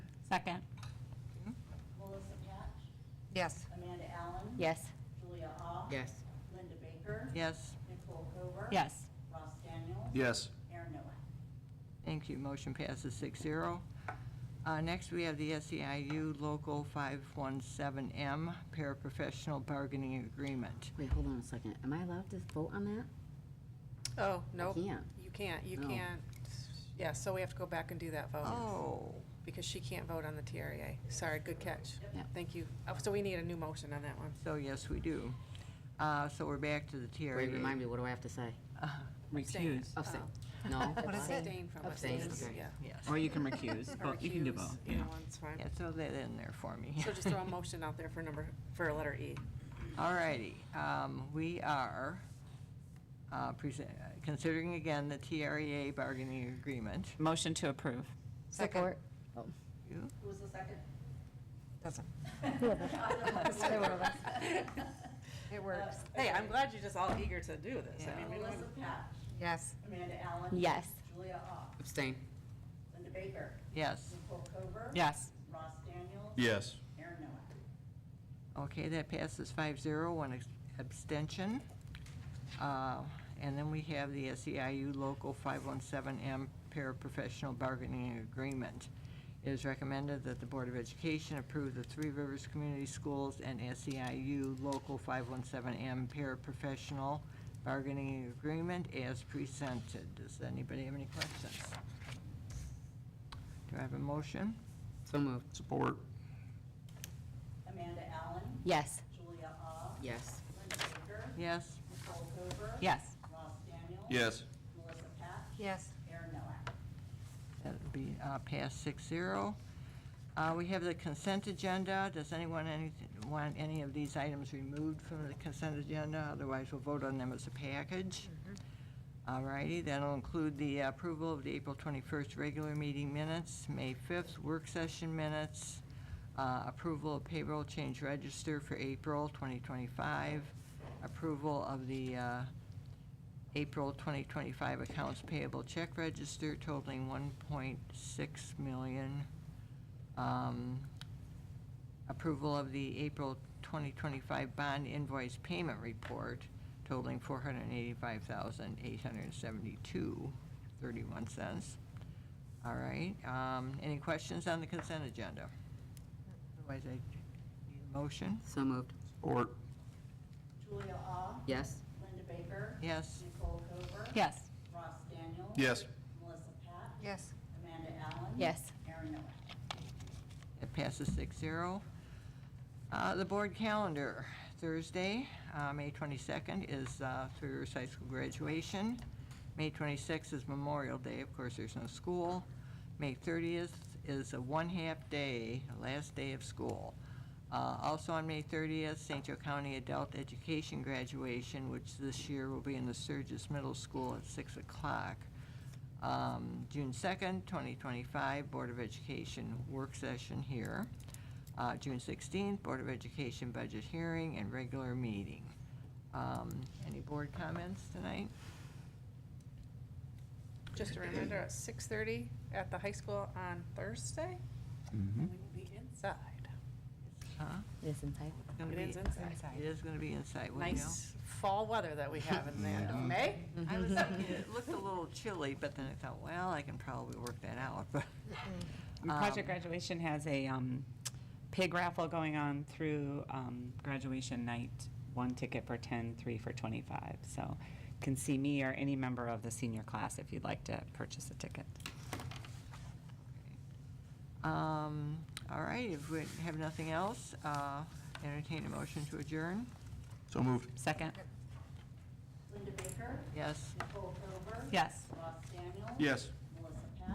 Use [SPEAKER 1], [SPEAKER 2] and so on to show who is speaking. [SPEAKER 1] Second.
[SPEAKER 2] Melissa Patch,
[SPEAKER 3] Yes.
[SPEAKER 2] Amanda Allen.
[SPEAKER 1] Yes.
[SPEAKER 2] Julia Ah.
[SPEAKER 3] Yes.
[SPEAKER 2] Linda Baker.
[SPEAKER 3] Yes.
[SPEAKER 2] Nicole Cooper.
[SPEAKER 1] Yes.
[SPEAKER 2] Ross Daniel.
[SPEAKER 4] Yes.
[SPEAKER 2] Aaron Noack.
[SPEAKER 3] Thank you. Motion passes six zero. Uh, next, we have the SEIU Local 517M Paraprofessional Bargaining Agreement.
[SPEAKER 5] Wait, hold on a second. Am I allowed to vote on that?
[SPEAKER 6] Oh, no.
[SPEAKER 5] can't.
[SPEAKER 6] You can't, you
[SPEAKER 5] No.
[SPEAKER 6] can't. Yeah, so we have to go back and do that vote.
[SPEAKER 3] Oh,
[SPEAKER 6] Because she can't vote on the TREA. Sorry, good catch.
[SPEAKER 5] Yeah.
[SPEAKER 6] Thank you. Oh, So we need a new motion on that one.
[SPEAKER 3] so yes, we do. Uh, so we're back to the TRA.
[SPEAKER 5] Wait, remind me, what do I have to say?
[SPEAKER 6] Recuse.
[SPEAKER 5] Abstain. No?
[SPEAKER 6] Abstain from
[SPEAKER 5] Abstain,
[SPEAKER 6] abstain,
[SPEAKER 5] okay.
[SPEAKER 6] yeah.
[SPEAKER 3] Yes.
[SPEAKER 7] Or you can recuse.
[SPEAKER 6] Or
[SPEAKER 7] Well, You can do
[SPEAKER 6] recuse,
[SPEAKER 7] both.
[SPEAKER 6] Either one's
[SPEAKER 3] Yeah,
[SPEAKER 6] fine.
[SPEAKER 3] throw that in there for me.
[SPEAKER 6] So just throw a motion out there for number, for a letter E.
[SPEAKER 3] All righty, um, we are uh, presen- uh, considering again the TREA bargaining agreement.
[SPEAKER 7] Motion to approve.
[SPEAKER 5] Support.
[SPEAKER 3] You?
[SPEAKER 2] Who was the second?
[SPEAKER 3] Doesn't.
[SPEAKER 2] It
[SPEAKER 6] Hey, I'm glad you're just all eager to do this. I mean, we don't-
[SPEAKER 2] Melissa Uh, Patch,
[SPEAKER 5] Yes.
[SPEAKER 2] Amanda Allen.
[SPEAKER 1] Yes.
[SPEAKER 2] Julia Ah.
[SPEAKER 5] Abstain.
[SPEAKER 2] Linda Baker.
[SPEAKER 3] Yes.
[SPEAKER 2] Nicole Cooper.
[SPEAKER 7] Yes.
[SPEAKER 2] Ross Daniel.
[SPEAKER 4] Yes.
[SPEAKER 2] Aaron Noack.
[SPEAKER 3] Okay, that passes 5-0, one ex- abstention. Uh, And then we have the SEIU Local 517M Paraprofessional Bargaining Agreement. It is recommended that the Board of Education approve the Three Rivers Community Schools and SEIU Local 517M Paraprofessional Bargaining Agreement as presented. Does anybody have any questions? Do I have a motion?
[SPEAKER 5] So moved.
[SPEAKER 4] Support.
[SPEAKER 2] Amanda Allen.
[SPEAKER 1] Yes.
[SPEAKER 2] Julia Ah.
[SPEAKER 5] Yes.
[SPEAKER 2] Linda Baker.
[SPEAKER 3] Yes?
[SPEAKER 2] Nicole Cooper.
[SPEAKER 1] Yes.
[SPEAKER 2] Ross Daniel.
[SPEAKER 4] Yes.
[SPEAKER 2] Melissa Patch.
[SPEAKER 5] Yes.
[SPEAKER 2] Aaron Noack.
[SPEAKER 3] That would be uh, passed 6-0. Uh, We have the consent agenda. Does anyone anyth- want any of these items removed from the consent agenda? Otherwise, we'll vote on them as a package. All righty, that'll include the approval of the April 21st regular meeting minutes, May 5th work session minutes, uh, approval of payroll change register for April 2025, approval of the uh, April 2025 accounts payable check register totaling 1.6 million. Um, Approval of the April 2025 bond invoice payment report totaling 485,872.31 cents. All right, um, any questions on the consent agenda? Otherwise, I need a motion.
[SPEAKER 5] So moved.
[SPEAKER 4] Support.
[SPEAKER 2] Julia Ah.
[SPEAKER 5] Yes.
[SPEAKER 2] Linda Baker.
[SPEAKER 3] Yes?
[SPEAKER 2] Nicole Cooper.
[SPEAKER 1] Yes.
[SPEAKER 2] Ross Daniel.
[SPEAKER 4] Yes.
[SPEAKER 2] Melissa Pat.
[SPEAKER 5] Yes.
[SPEAKER 2] Amanda Allen.
[SPEAKER 1] Yes.
[SPEAKER 2] Erin Noack.
[SPEAKER 3] It passes six zero. Uh, the board calendar, Thursday, uh, May twenty-second is, uh, Three Rivers High School graduation. May twenty-sixth is Memorial Day, of course, there's no school. May thirtieth is a one-half day, last day of school. Uh, also on May thirtieth, St. Joe County Adult Education graduation, which this year will be in the Sturgis Middle School at six o'clock. Um, June 2nd, 2025, Board of Education work session here. Uh, June 16th, Board of Education budget hearing and regular meeting. Um, Any board comments tonight?
[SPEAKER 6] Just a reminder, at 6:30 at the high school on Thursday, we will be inside.
[SPEAKER 3] Huh?
[SPEAKER 1] Listen, I.
[SPEAKER 3] It's gonna
[SPEAKER 6] It
[SPEAKER 3] be-
[SPEAKER 6] is inside.
[SPEAKER 3] It is going to be inside, will
[SPEAKER 6] Nice fall weather that we have in the end of May.
[SPEAKER 3] I was thinking, it looked a little chilly, but then I thought, well, I can probably work that out, but.
[SPEAKER 8] Project Graduation has a um, pig raffle going on through um, graduation night, one ticket for 10, three for 25. So can see me or any member of the senior class if you'd like to purchase a ticket.
[SPEAKER 3] Um, All right, if we have nothing else, uh, entertain a motion to adjourn.
[SPEAKER 4] So moved.
[SPEAKER 8] Second?
[SPEAKER 2] Linda Baker.
[SPEAKER 3] Yes?
[SPEAKER 2] Nicole Cooper.
[SPEAKER 8] Yes.
[SPEAKER 2] Ross Daniel.
[SPEAKER 4] Yes.